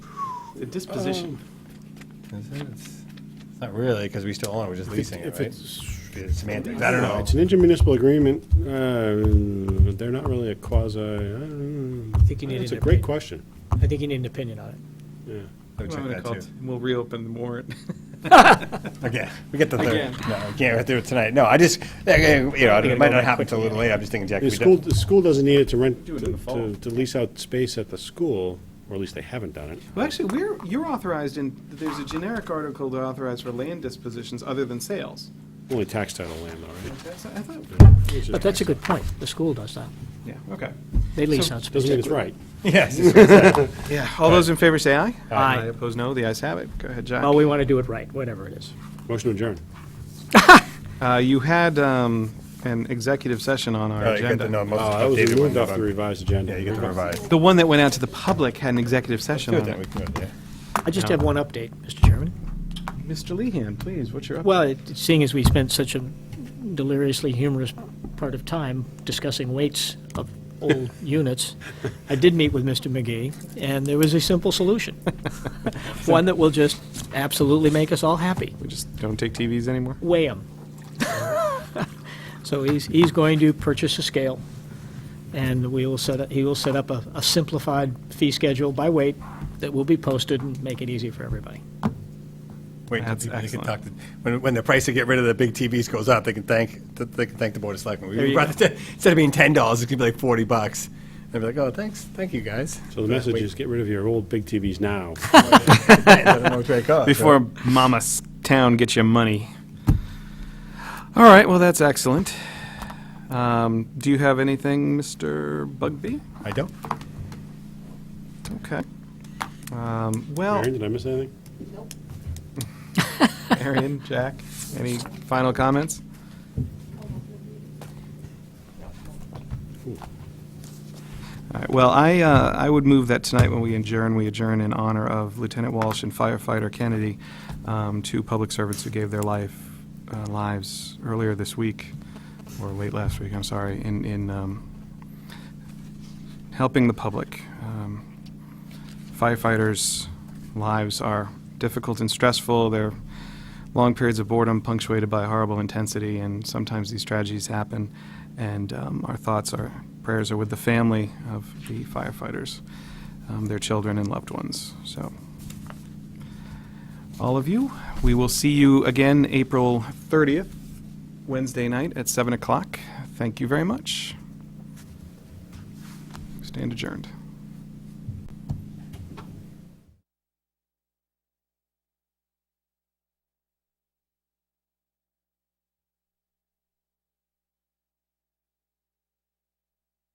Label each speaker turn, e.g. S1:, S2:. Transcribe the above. S1: The disposition.
S2: Um,
S3: Is it? It's it's not really, because we still own it, we're just
S2: If it's-
S3: leasing it,
S2: if
S3: right?
S2: it's-
S3: It's Semantics, I don't know.
S2: It's an intermunicipal agreement. Uh, They're not really a quasi, I don't know.
S4: I think you need
S2: It's
S4: an
S2: a great
S4: opinion.
S2: question.
S4: I think you need an opinion on it.
S2: Yeah.
S3: Let me
S1: Oh. Well, I'm
S3: check
S1: gonna
S3: that
S1: call
S3: too.
S1: it- We'll reopen the warrant.
S3: Again, we get the third.
S1: Again.
S3: No, I can't do it tonight. No, I just, again, you know,
S4: gotta
S3: it might
S4: go
S3: not
S4: back
S3: happen till a little
S4: quickly.
S3: late. I'm just thinking, Jack, we
S2: The school,
S3: don't.
S2: the school doesn't need it to rent,
S1: Do it in the fall.
S2: to to lease out space at the school, or at least they haven't done it.
S1: Well, actually, we're, you're authorized in, there's a generic article to authorize for land dispositions other than sales.
S2: Only tax title land, all right?
S1: That's- I thought-
S2: Which is
S4: But that's a
S2: nice.
S4: good point. The school does that.
S1: Yeah, okay.
S4: They lease
S1: So-
S4: out
S2: Doesn't mean
S4: space.
S2: it's right.
S3: Yes. it's-
S1: Yeah, all those in favor say aye.
S4: Aye.
S1: Opposed, no. The ayes have it. Go ahead, Jack.
S4: Well, we want to do it right, whatever it is.
S2: Motion to adjourn.
S1: Uh, You had um, an executive session on
S3: All
S1: our
S3: right, you get the-
S1: agenda.
S3: no, most
S2: Oh, that was
S3: updated
S2: removed
S3: one,
S2: off
S3: but-
S2: the revised agenda.
S3: Yeah, you get the revised.
S1: The one that went out to the public had an executive session
S3: Good,
S1: on
S3: then we
S1: it.
S3: can go, yeah.
S4: I just
S1: No.
S4: have one update, Mr. Chairman.
S1: Mr. Lehan, please, what's your update?
S4: Well, it- seeing as we spent such a deliriously humorous part of time discussing weights of old units, I did meet with Mr. McGee, and there was a simple solution. One that will just absolutely make us all happy.
S1: We just don't take TVs anymore?
S4: weigh 'em. So he's, he's going to purchase a scale, and we will set, up- he will set up a a simplified fee schedule by weight that will be posted and make it easy for everybody.
S3: Wait,
S1: That's
S3: that's they can
S1: excellent.
S3: talk to, when, when the price to get rid of the big TVs goes up, they can thank, th- they can thank the Board of Selectmen.
S4: There
S3: We
S4: you
S3: brought
S4: go.
S3: it to- Instead of being ten dollars, it's gonna be like forty bucks. They'll be like, oh, thanks, thank you, guys.
S2: So the message is get rid of your old big TVs now.
S3: I don't know which way it goes, so-
S1: Before Mama's town gets your money. All right, well, that's excellent. Um, Do you have anything, Mr. Bugby?
S3: I don't.
S1: Okay. Um, Well,
S2: Aaron, did I miss anything?
S1: Arian, Jack, any final comments? All right, well, I, uh, I would move that tonight when we adjourn, we adjourn in honor of Lieutenant Walsh and firefighter Kennedy, um, two public servants who gave their life, uh, lives earlier this week, or late last week, I'm sorry, in, in um, helping the public. Um, firefighters' lives are difficult and stressful. They're long periods of boredom punctuated by horrible intensity, and sometimes these tragedies happen. And um, our thoughts, our prayers are with the family of the firefighters, um, their children, and loved ones. So, all of you, we will see you again April 30th, Wednesday night at 7 o'clock. Thank you very much. Stand adjourned.